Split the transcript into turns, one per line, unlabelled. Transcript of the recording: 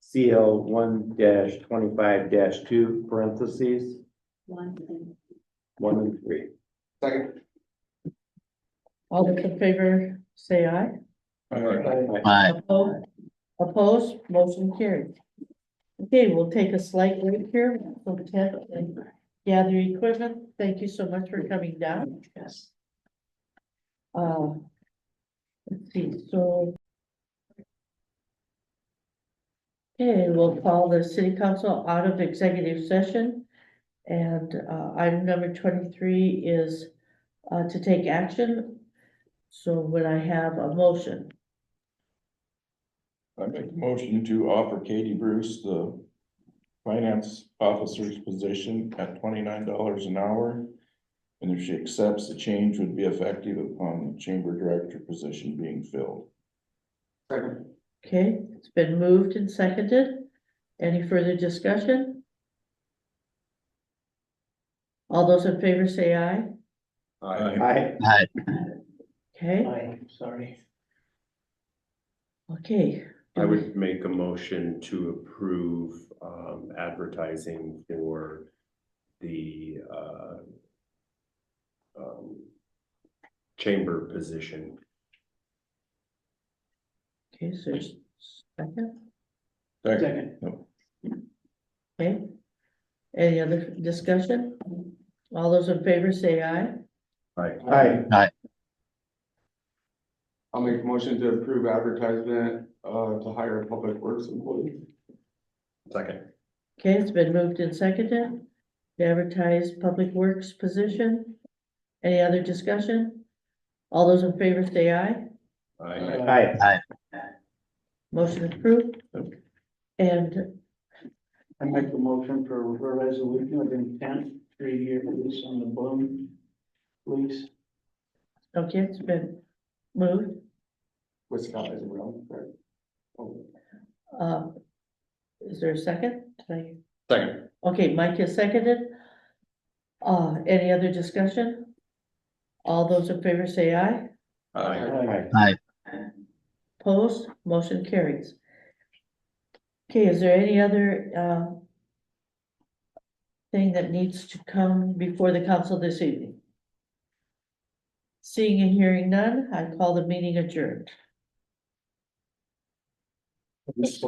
CL one twenty-five two parentheses,
One thing.
one and three.
Second.
All those in favor, say aye.
Aye.
Opposed? Opposed, motion carried. Okay, we'll take a slight break here, we'll tap and gather equipment. Thank you so much for coming down. Yes. Uh, let's see, so. Okay, we'll call the city council out of executive session. And, uh, item number twenty-three is, uh, to take action. So would I have a motion?
I make a motion to offer Katie Bruce the finance officer's position at twenty-nine dollars an hour. And if she accepts, the change would be effective upon the chamber director position being filled.
Second.
Okay, it's been moved and seconded. Any further discussion? All those in favor say aye.
Aye.
Aye.
Okay,
Aye, sorry.
okay.
I would make a motion to approve um advertising for the uh. um, Chamber position.
Okay, so s- second,
Second,
Second.
okay. Any other discussion? All those in favor say aye.
Aye.
I'll make a motion to approve advertisement, uh, to hire a public works employee.
Second.
Okay, it's been moved and seconded. To advertise public works position. Any other discussion? All those in favor say aye.
I
Aye.
Motion approved. And,
I make a motion for a resolution of intent, three-year lease on the Bloom lease.
okay, it's been moved,
With Scott as well, correct? Oh,
um, is there a second? Did
Second.
I- Okay, Mike has seconded. Uh, any other discussion? All those in favor say aye,
Aye.
Uh,
Aye.
opposed, motion carries. Okay, is there any other, uh, thing that needs to come before the council this evening? Seeing and hearing none, I call the meeting adjourned.